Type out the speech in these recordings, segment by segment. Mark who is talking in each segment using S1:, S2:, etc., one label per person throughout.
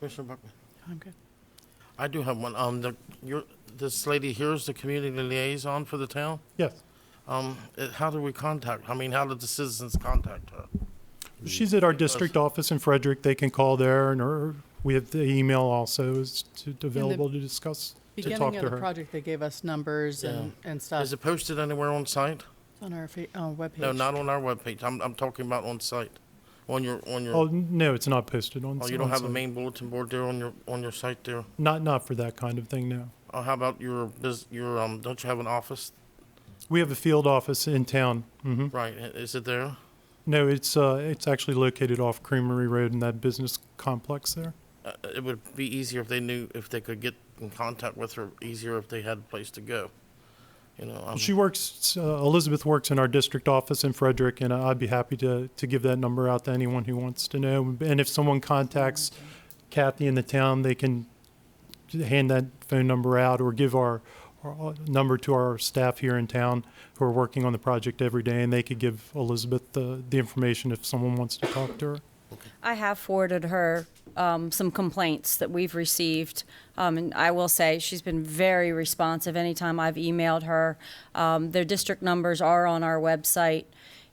S1: Commissioner Buckman?
S2: I'm good.
S1: I do have one. Um, the, your, this lady here is the community liaison for the town.
S3: Yes.
S1: Um, it- how do we contact, I mean, how did the citizens contact her?
S3: She's at our district office in Frederick. They can call there and her, we have the email also is to- available to discuss, to
S2: Beginning
S3: talk to
S2: of the
S3: her.
S2: project, they gave us numbers and, and
S3: Uh,
S2: stuff
S1: Is it posted anywhere on site?
S2: on our fa- uh, webpage.
S1: No, not on our webpage. I'm, I'm talking about on site, on your, on your,
S3: Oh,
S1: oh,
S3: no, it's not posted on.
S1: you don't have a
S3: on-
S1: main bulletin board there on your, on your site there?
S3: Not, not for that kind of thing, no.
S1: Oh, how about your bus, your, um, don't you have an office?
S3: We have a field office in town. hmm
S1: Right, i- is it there?
S3: No, it's, uh, it's actually located off Creamery Road in that business complex there.
S1: Uh, it would be easier if they knew, if they could get in contact with her, easier if they had a place to go. You know, um,
S3: She works, uh, Elizabeth works in our district office in Frederick, and uh, I'd be happy to, to give that number out to anyone who wants to know. And if someone contacts Kathy in the town, they can hand that phone number out or give our, our uh, number to our staff here in town who are working on the project every day, and they could give Elizabeth the, the information if someone wants to talk to her.
S4: I have forwarded her um, some complaints that we've received, um, and I will say she's been very responsive. Anytime I've emailed her, um, their district numbers are on our website,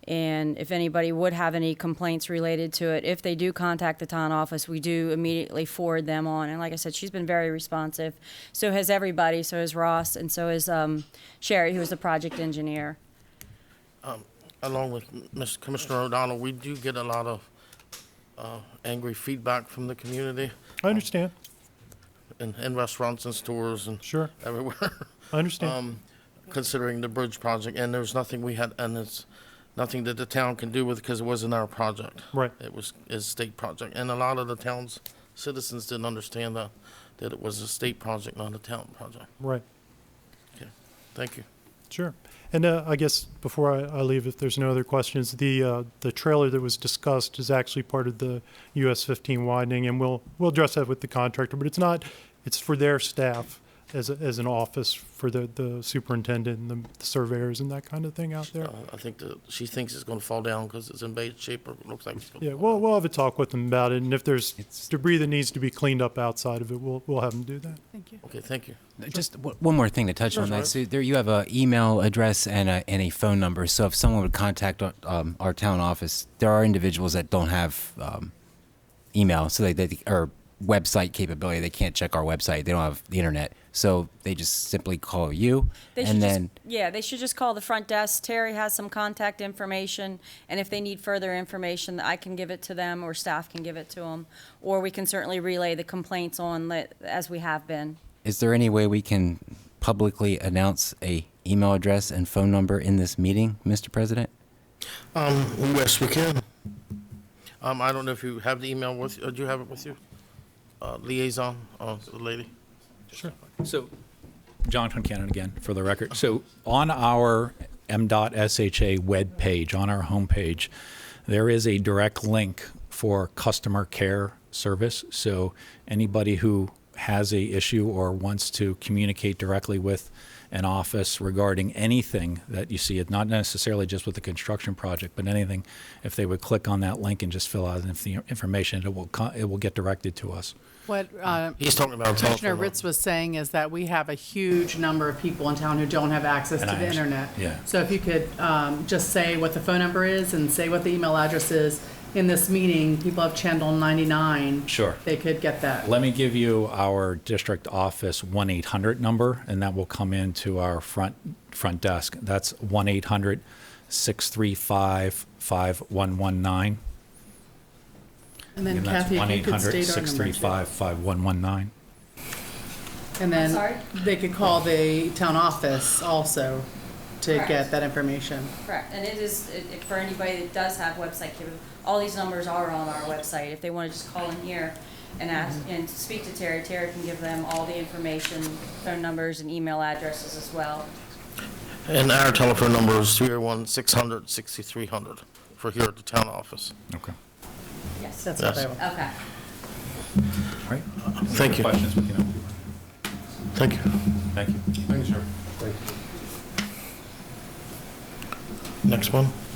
S4: and if anybody would have any complaints related to it, if they do contact the town office, we do immediately forward them on. And like I said, she's been very responsive. So has everybody. So has Ross, and so has um, Sherry, who is the project engineer.
S1: along with Mr. Commissioner O'Donnell, we do get a lot of uh, angry feedback from the community
S3: I understand,
S1: in, in restaurants and stores and
S3: sure,
S1: everywhere,
S3: I understand.
S1: um, considering the bridge project. And there's nothing we had, and it's nothing that the town can do with because it wasn't our project.
S3: Right.
S1: It was is state project, and a lot of the town's citizens didn't understand that that it was a state project, not a town project.
S3: Right.
S1: Thank you.
S3: Sure. And uh, I guess before I, I leave, if there's no other questions, the uh, the trailer that was discussed is actually part of the US 15 widening, and we'll we'll address that with the contractor. But it's not; it's for their staff as a, as an office for the the superintendent and the, surveyors and that kind of thing out there.
S1: Uh, I think that she thinks it's going to fall down because it's in bad shape, or it looks like it's going.
S3: Yeah, we'll we'll have a talk with them about it, and if there's debris that needs to be cleaned up outside of it, we'll we'll have them do that.
S2: Thank you.
S1: Okay, thank you.
S5: Just w- one more thing to touch on that. So there you have an email address and a, and a phone number. So if someone would contact our, um, our town office, there are individuals that don't have um, email, so they, they or website capability. They can't check our website. They don't have the internet, so they just simply call you,
S4: They should
S5: and then
S4: just, yeah, they should just call the front desk. Terry has some contact information, and if they need further information, I can give it to them, or staff can give it to them, or we can certainly relay the complaints on li- as we have been.
S5: is there any way we can publicly announce a email address and phone number in this meeting, Mr. President?
S1: Um, yes, we can. Um, I don't know if you have the email with, or do you have it with you? Uh, liaison, uh, the lady?
S6: So, John Concanon again, for the record. So, on our m.sha webpage, on our homepage, there is a direct link for customer care service. So, anybody who has a issue or wants to communicate directly with an office regarding anything that you see, it not necessarily just with the construction project, but anything, if they would click on that link and just fill out the information, it will co- it will get directed to us.
S2: What uh,
S1: He's talking about.
S2: Commissioner Ritz was saying is that we have a huge number of people in town who don't have access to
S6: And I
S2: the
S6: understand.
S2: internet.
S6: Yeah.
S2: So if you could um, just say what the phone number is and say what the email address is, in this meeting, people have channel 99.
S6: Sure.
S2: They could get that.
S6: Let me give you our district office 1-800 number, and that will come into our front, front desk. That's 1-800-635-5119.
S2: And then
S6: And that's
S2: Kathy, if you could state our number. too.
S6: 1-800-635-5119.
S2: And
S4: sorry?
S2: then they could call the town office also to get
S4: Correct.
S2: that information.
S4: Correct, and it is, it- it- for anybody that does have website capability, all these numbers are on our website. If they want to just call in here and ask, and speak to Terry, Terry can give them all the information, phone numbers and email addresses as well.
S1: And our telephone number is three oh one, six hundred, sixty-three hundred for here at the town office.
S6: Okay.
S4: Yes,
S2: That's what
S1: Yes.
S2: they want.
S4: okay.
S6: All right.
S1: Thank you,
S6: Questions? we can have.
S1: thank you.
S6: Thank you.
S1: Next one?